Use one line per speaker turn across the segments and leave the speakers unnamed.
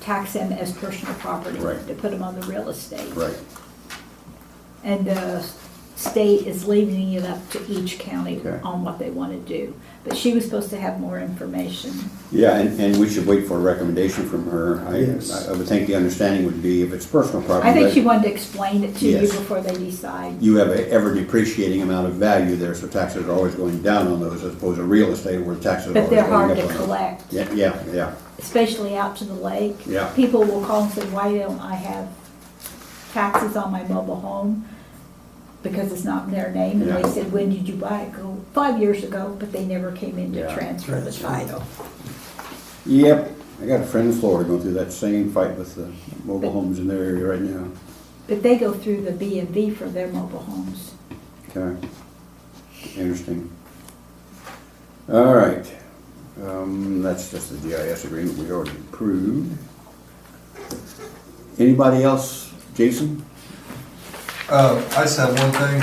tax them as personal property,
Right.
to put them on the real estate.
Right.
And the state is leaving it up to each county
Okay.
on what they want to do. But she was supposed to have more information.
Yeah, and, and we should wait for a recommendation from her.
Yes.
I, I would think the understanding would be if it's personal property.
I think
that
she wanted to explain it to you
Yes.
before they decide.
You have a ever depreciating amount of value there, so taxes are always going down on those as opposed to real estate where taxes are
But
always
they're
going
hard
up.
to
on those.
collect,
Yeah, yeah, yeah,
especially out to the lake.
Yeah.
People will call and say, why don't I have taxes on my mobile home? Because it's not in their name. And
Yeah.
they said, when did you buy it? Go, five years ago, but they never came in to
Yeah.
transfer the
Transfer.
title.
yep. I got a friend in Florida going through that same fight with the mobile homes in their area right now.
But they go through the B and V for their mobile homes.
Okay, interesting. All right, um, that's just the GIS agreement we already approved. Anybody else, Jason?
Uh, I just have one thing.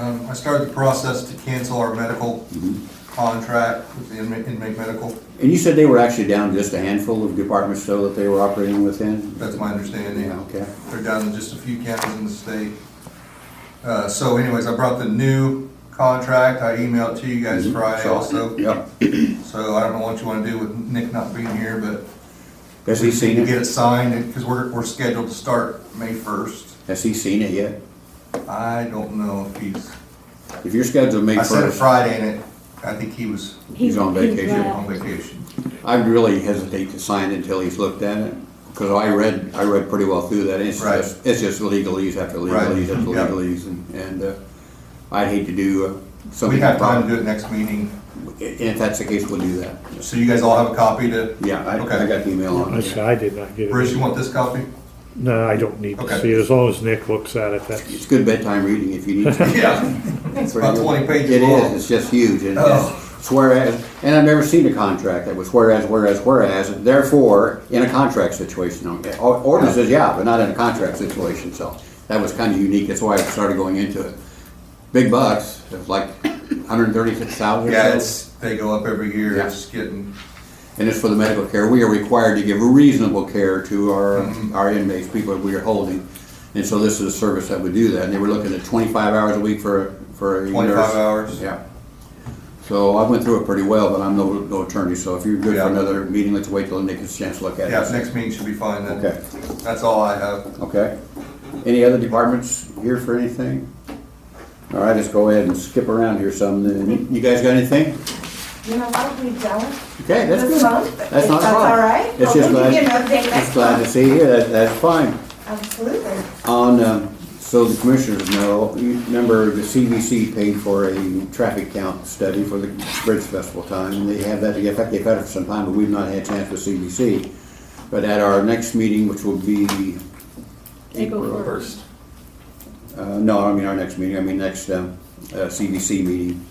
Um, I started the process to cancel our medical
Mm-hmm.
contract with the inmate inmate medical.
And you said they were actually down just a handful of departments though that they were operating within?
That's my understanding.
Yeah, okay.
They're down to just a few counties in the state. Uh, So anyways, I brought the new contract. I emailed to you
Mm-hmm.
guys Friday
So-
also.
Yep,
So I don't know what you want to do with Nick not being here, but
has he seen
you get
it?
it signed because we're, we're scheduled to start May 1st.
Has he seen it yet?
I don't know if he's,
If you're scheduled to make
I sent it
first,
Friday and it, I think he was
He's on
He-
vacation.
left.
on vacation.
I'd really hesitate to sign it until he's looked at it, because I read, I read pretty well through that, it's
Right.
just, it's just legalese after
Right,
legalese after
yeah.
legalese, and, and, uh, I'd hate to do uh, something.
We have time to do it next meeting,
And if that's the case, we'll do that.
so you guys all have a copy to,
Yeah, I, I
Okay.
got the email on
That's-
it.
I did not get
Bruce, you
it.
want this copy?
No, I don't need to
Okay.
see it, as long as Nick looks at it,
It's
that's,
good bedtime reading if you need to.
Yeah. It's about twenty pages
It is,
long.
it's just huge, and
Oh.
it's whereas, and I've never seen a contract that was whereas, whereas, whereas, therefore, in a contract situation, okay. Or- ordinances, yeah, but not in a contract situation, so that was kind of unique, that's why I started going into it. Big bucks, it was like hundred and thirty-six thousand
Yeah,
or so,
it's, they go up every year,
Yeah.
it's getting,
and it's for the medical care, we are required to give reasonable care to our,
Mm-hmm.
our inmates, people that we are holding. And so this is a service that would do that, and they were looking at twenty-five hours a week for, a- for a nurse.
25 hours.
Yeah. So I went through it pretty well, but I'm no, no attorney, so if you're good
Yeah.
for another meeting, let's wait till Nick gets a chance to look at it.
yeah, next meeting should be fine then.
Okay.
That's all I have.
Okay. Any other departments here for anything? All right, let's go ahead and skip around here some. then. You- You guys got anything?
You know what, we don't.
Okay, that's good.
This month,
That's not a problem.
That's all right.
It's just
Well, we can
glad,
give you an update
just
next
glad to
month.
see you, that, that's fine.
Absolutely.
On, um, so the commissioners know, you remember the CBC paid for a traffic count study for the Bridge Festival time, and they have that, in fact, they've had it for some time, but we've not had a chance with CBC. But at our next meeting, which will be,
April first.
uh, no, I mean our next meeting, I mean next, um, uh, CBC meeting.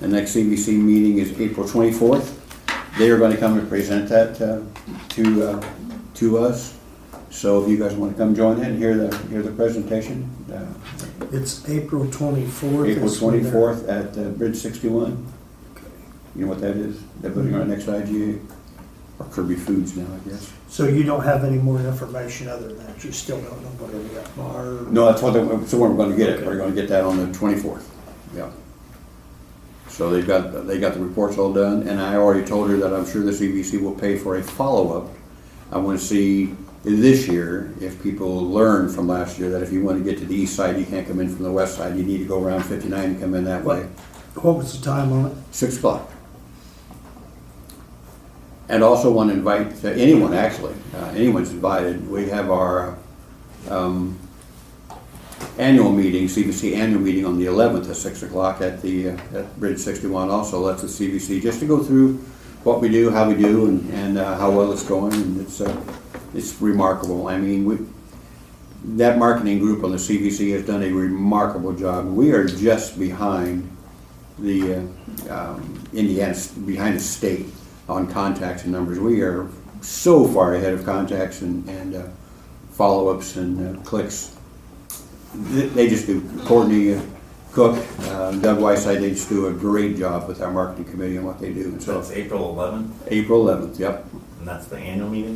The next CBC meeting is April twenty-fourth. They are gonna come and present that, uh, to, uh, to us. So if you guys wanna come join in and hear the, hear the presentation, uh,
It's April twenty-fourth.
April twenty-fourth at uh, Bridge sixty-one. You know what that is? They're putting our next IGA, or Kirby Foods now, I guess.
So you don't have any more information other than that? You still don't know whether we got bar?
No, that's what, they- so we're gonna get it,
Okay.
we're gonna get that on the twenty-fourth, yeah. So they've got, they got the reports all done, and I already told her that I'm sure the CBC will pay for a follow-up. I wanna see this year if people learn from last year, that if you wanna get to the east side, you can't come in from the west side, you need to go around fifty-nine and come in that way.
What was the time on it?
six o'clock. And also want to invite uh, anyone, actually, uh, anyone's invited, we have our um, annual meeting, CBC annual meeting on the eleventh at six o'clock at the, uh, at Bridge sixty-one also, that's the CBC, just to go through what we do, how we do, and, and uh, how well it's going, and it's, uh, it's remarkable, I mean, we, that marketing group on the CBC has done a remarkable job, we are just behind the uh, um, Indiana, behind the state on contacts and numbers. We are so far ahead of contacts and, and uh, follow-ups and uh, clicks. Th- They just do, Courtney Cook, uh, Doug Whiteside, they just do a great job with our marketing committee and what they do. And
So
so,
it's April 11th,
April 11th, yep,
and that's the annual meeting?